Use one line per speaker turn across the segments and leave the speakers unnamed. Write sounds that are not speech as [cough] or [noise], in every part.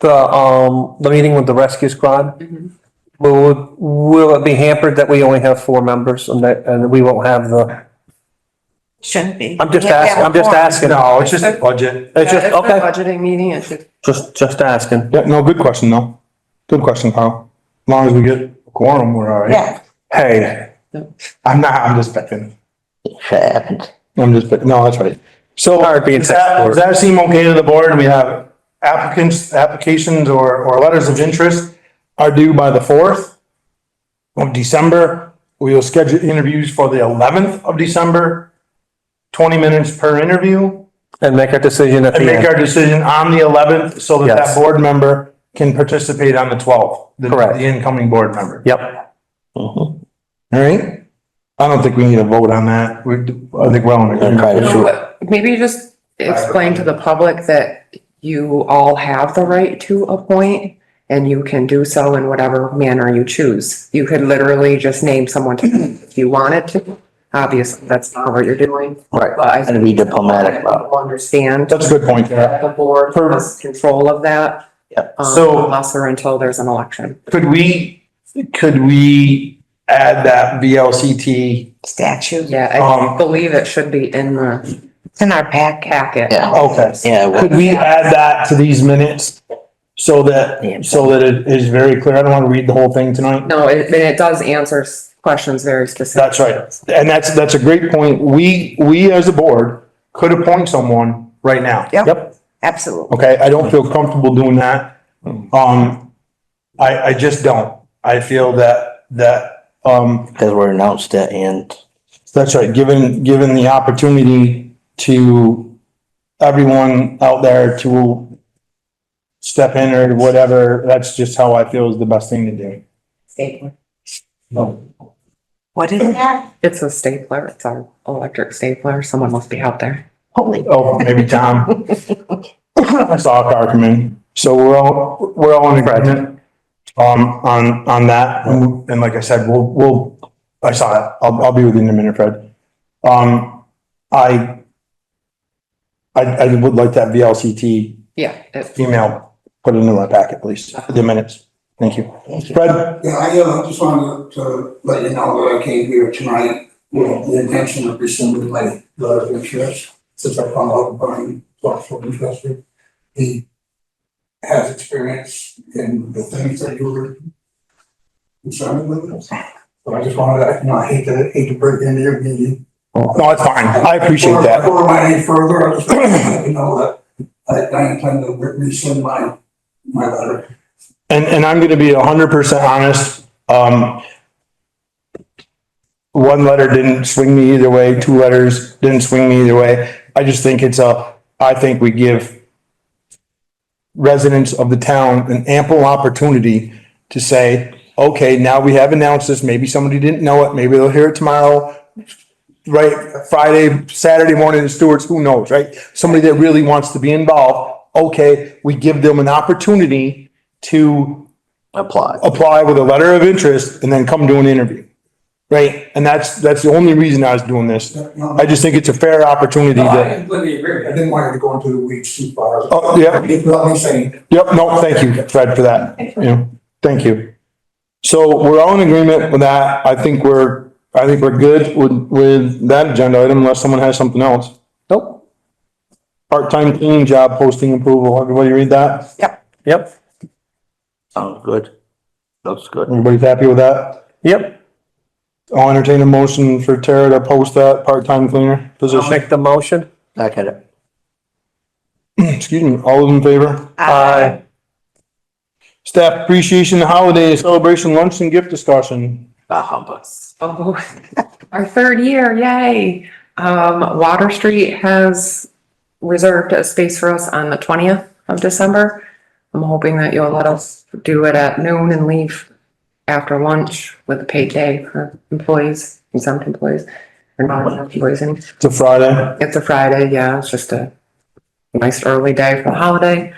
the, um, the meeting with the rescue squad? Will, will it be hampered that we only have four members and that, and we won't have the,
Shouldn't be.
I'm just
Yeah,
asking, I'm just
yeah.
asking.
No, it's just a budget.
It's just,
Yeah, it's a
okay,
Budgeting meeting, it's just.
just, just asking.
Yeah, no, good question, though. Good question, Kyle. As long as we get a quorum, we're all right.
Yeah.
Hey, I'm not, I'm just picking.
happened.
I'm just picking. No, that's right. So
Hard being
does that,
said.
does that seem okay to the board? And we have applicants, applications or, or letters of interest are due by the fourth of December. We will schedule interviews for the eleventh of December. Twenty minutes per interview.
And make our decision at
and
the
make
end.
our decision on the eleventh so that that
Yes.
board member can participate on the twelfth.
Correct.
The incoming board member. Mm-hmm.
Yep,
All right. I don't think we need a vote on that. We, I think we're on.
Gonna try to shoot.
Maybe you just explain to the public that you all have the right to appoint and you can do so in whatever manner you choose. You could literally just name someone to- if you wanted to. Obviously, that's not what you're doing.
Right.
But I
And be diplomatic about it.
People Understand
That's a good point, Kara.
that the board has control of that.
Yep.
um,
So-
Unless or until there's an election.
Could we, could we add that VLCT?
Statue.
Yeah, I
Um,
believe it should be in the. It's in our pack. Packet.
Yeah,
Okay.
yeah, well,
Could we add that to these minutes? So
Yeah.
that, so that it is very clear. I don't want to read the whole thing tonight.
No, it, and it does answer s- questions very specific.
That's right. And that's, that's a great point. We, we as a board could appoint someone right now.
Yep. absolutely.
Okay, I don't feel comfortable doing that. Um, I, I just don't. I feel that, that, um,
Because we're announced it and
that's right, given, given the opportunity to everyone out there to step in or whatever, that's just how I feel is the best thing to do.
Stapler.
What is that?
It's a stapler, it's our electric stapler, someone must be out there.
Holy.
Oh, maybe Tom. I saw a car come in. So we're all, we're all in agreement um, on, on that. And and like I said, we'll, we'll, I saw it. I'll, I'll be with you in a minute, Fred. Um, I, I, I would like that VLCT
Yeah, it-
email put into my packet, please, for the minutes. Thank you. Fred,
Yeah, I uh, just wanted to let you know that I came here tonight with the intention of rescinding my letter of insurance since I found out Brian talked from Winchester. He has experience in the things that you were concerned with. So I just wanted to, you know, I hate to, hate to break into your meeting.
no, it's fine. I appreciate
Before-
that.
Before I went any further, I just wanted to let you know that I I intend to rescind my, my letter.
And, and I'm gonna be hundred percent honest, um. One letter didn't swing me either way, two letters didn't swing me either way. I just think it's a, I think we give. Residents of the town an ample opportunity to say, okay, now we have announced this, maybe somebody didn't know it, maybe they'll hear it tomorrow. Right, Friday, Saturday morning in Stewart's, who knows, right? Somebody that really wants to be involved, okay, we give them an opportunity to
Apply.
apply with a letter of interest and then come do an interview. Right? And that's, that's the only reason I was doing this. I just think it's a fair opportunity
No, I
to,
completely agree. I didn't want you to go into the weeds too far.
Oh, yeah.
That's what I'm saying.
yep, no, thank you, Fred, for that. You know, thank you. So we're all in agreement with that. I think we're, I think we're good with, with that agenda item unless someone has something else. Nope. Part-time cleaning job posting approval. Everybody read that?
yep,
Sounds Oh, good. Looks good.
Everybody's happy with that?
yep.
I'll entertain a motion for Tara to post that part-time cleaner
I'll
position.
make the motion.
Back at it.
Excuse me, all those in favor?
Aye.
Staff appreciation holiday celebration lunch and gift discussion.
Bah humbug.
oh, [laughs] our third year, yay. Um, Water Street has reserved a space for us on the twentieth of December. I'm hoping that you'll let us do it at noon and leave after lunch with a paid day for employees, exempt employees. Or not employees, any.
It's a Friday.
It's a Friday, yeah, it's just a nice early day for the holiday.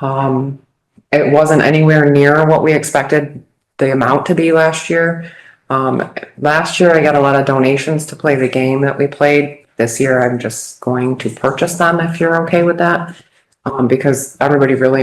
Um, it wasn't anywhere near what we expected the amount to be last year. Um, last year I got a lot of donations to play the game that we played. This year I'm just going to purchase them if you're okay with that. Um, because everybody really